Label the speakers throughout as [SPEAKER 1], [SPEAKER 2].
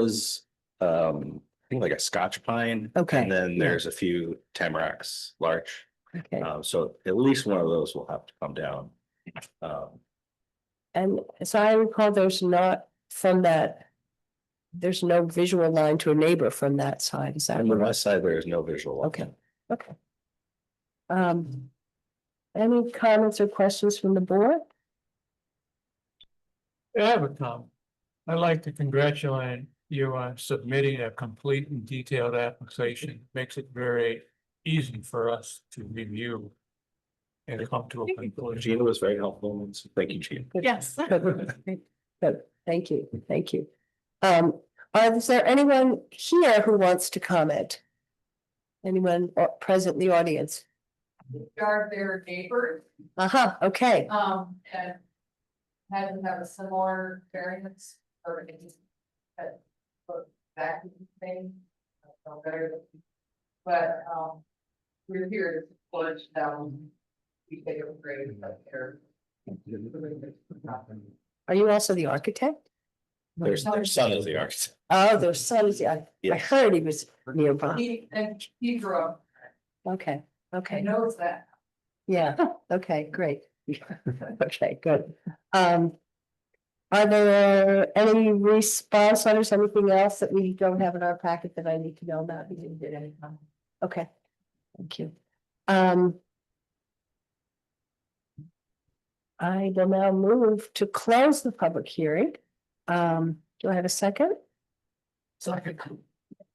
[SPEAKER 1] those, um, I think like a scotch pine.
[SPEAKER 2] Okay,
[SPEAKER 1] And then
[SPEAKER 2] yeah.
[SPEAKER 1] there's a few tamaracks, larch.
[SPEAKER 2] Okay,
[SPEAKER 1] Um, so at least one of those will have to come down. Um,
[SPEAKER 2] and so I recall there's not from that. There's no visual line to a neighbor from that side, is that
[SPEAKER 1] on the
[SPEAKER 2] right?
[SPEAKER 1] west side, there is no visual.
[SPEAKER 2] Okay, okay. Um, any comments or questions from the board?
[SPEAKER 3] I have a comment. I'd like to congratulate you on submitting a complete and detailed application. Makes it very easy for us to review and come to a conclusion.
[SPEAKER 1] Gina was very helpful. and so Thank you, Gina.
[SPEAKER 2] Yes. Good, thank you, thank you. Um, are- is there anyone here who wants to comment? Anyone uh, present in the audience?
[SPEAKER 4] are their neighbor,
[SPEAKER 2] Uh-huh, okay,
[SPEAKER 4] um, and had them have a similar variance or any that but that thing, I don't know better than- but, um, we're here to flush down, we take a break, but they're
[SPEAKER 2] are you also the architect?
[SPEAKER 1] There's, their son is the architect.
[SPEAKER 2] Oh, their son is, I, I
[SPEAKER 1] Yes.
[SPEAKER 2] heard he was nearby.
[SPEAKER 4] He, and he grew up,
[SPEAKER 2] Okay,
[SPEAKER 4] and
[SPEAKER 2] okay,
[SPEAKER 4] knows that,
[SPEAKER 2] yeah, okay, great. Okay, good. Um. Are there any response letters, anything else that we don't have in our packet that I need to know about? We didn't get any. um, Okay, thank you. Um. I will now move to close the public hearing. Um, do I have a second?
[SPEAKER 3] Second.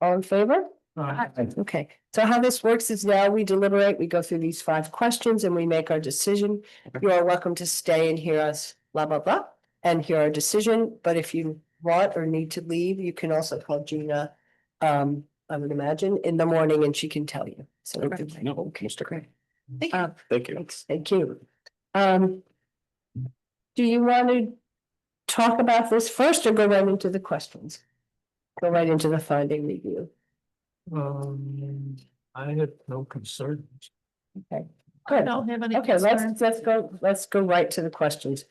[SPEAKER 2] All in favor?
[SPEAKER 3] Uh,
[SPEAKER 2] Okay, so how this works is now we deliberate, we go through these five questions and we make our decision. You are welcome to stay and hear us blah, blah, blah, and hear our decision, but if you want or need to leave, you can also call Gina. Um, I would imagine in the morning and she can tell you. So.
[SPEAKER 1] Okay, no,
[SPEAKER 2] Okay,
[SPEAKER 1] Mr.
[SPEAKER 2] great.
[SPEAKER 4] Thank
[SPEAKER 2] you.
[SPEAKER 1] Thank you.
[SPEAKER 2] Thanks, thank you. Um. Do you want to talk about this first or go right into the questions? Go right into the finding review,
[SPEAKER 3] Um, I have no concerns.
[SPEAKER 2] good.
[SPEAKER 5] don't have any.
[SPEAKER 2] Okay, let's, let's go, let's go right to the questions.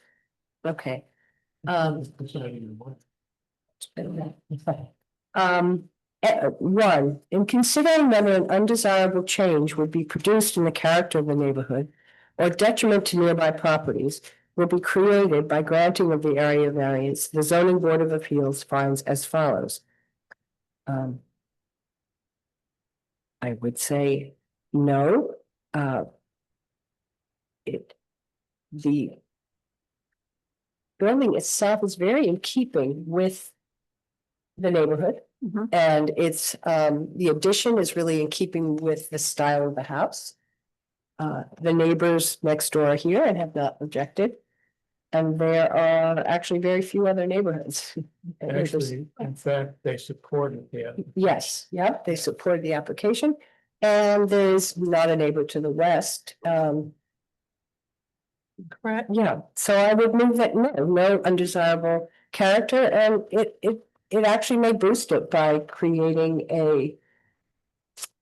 [SPEAKER 2] Okay. Um,
[SPEAKER 3] Concerning what?
[SPEAKER 2] um, eh, one, in considering whether an undesirable change would be produced in the character of the neighborhood or detriment to nearby properties will be created by granting of the area variance, the zoning board of appeals finds as follows. Um, I would say no, uh, it, the building itself is very in keeping with the neighborhood.
[SPEAKER 5] Mhm.
[SPEAKER 2] And it's, um, the addition is really in keeping with the style of the house. Uh, the neighbors next door are here and have not objected. And there are actually very few other neighborhoods. And there's-
[SPEAKER 3] Actually, in fact, they supported the
[SPEAKER 2] Yes, yep, they supported the application. And there's not a neighbor to the west, um,
[SPEAKER 5] Correct.
[SPEAKER 2] Yeah, so I would move that no, no undesirable character and it it it actually may boost it by creating a.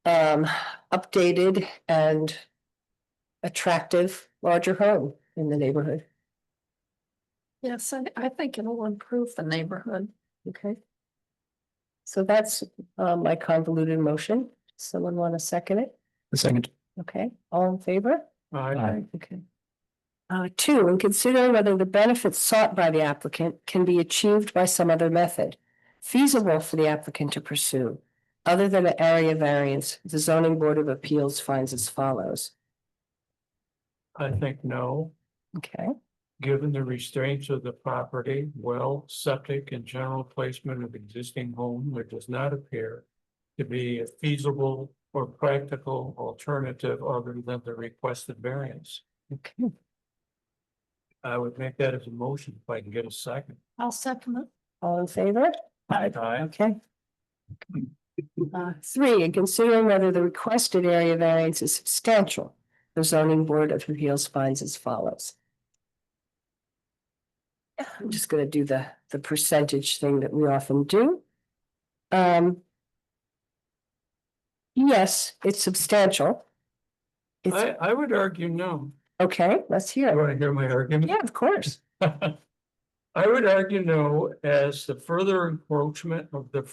[SPEAKER 2] Um, updated and attractive larger home in the neighborhood,
[SPEAKER 5] Yes, I, I think it'll improve the neighborhood.
[SPEAKER 2] okay? So that's um my convoluted motion. Someone want to second it?
[SPEAKER 3] Second.
[SPEAKER 2] Okay, all in favor?
[SPEAKER 3] I,
[SPEAKER 2] Okay. Uh, two, and consider whether the benefits sought by the applicant can be achieved by some other method feasible for the applicant to pursue, other than an area variance, the zoning board of appeals finds as follows.
[SPEAKER 3] I think no.
[SPEAKER 2] Okay,
[SPEAKER 3] Given the restraints of the property, well, septic and general placement of existing home, there does not appear. To be a feasible or practical alternative other than the requested variance.
[SPEAKER 2] okay,
[SPEAKER 3] I would make that as a motion if I can get a second.
[SPEAKER 5] I'll second it.
[SPEAKER 2] all in favor?
[SPEAKER 3] Aye.
[SPEAKER 2] Okay. Uh, Three, and considering whether the requested area variance is substantial, the zoning board of appeals finds as follows. I'm just gonna do the, the percentage thing that we often do. Um. Yes, it's substantial. It's,
[SPEAKER 3] I, I would argue no.
[SPEAKER 2] okay, let's hear
[SPEAKER 3] You
[SPEAKER 2] it.
[SPEAKER 3] want to hear my argument?
[SPEAKER 2] Yeah, of course.
[SPEAKER 3] I would argue no, as the further encroachment of the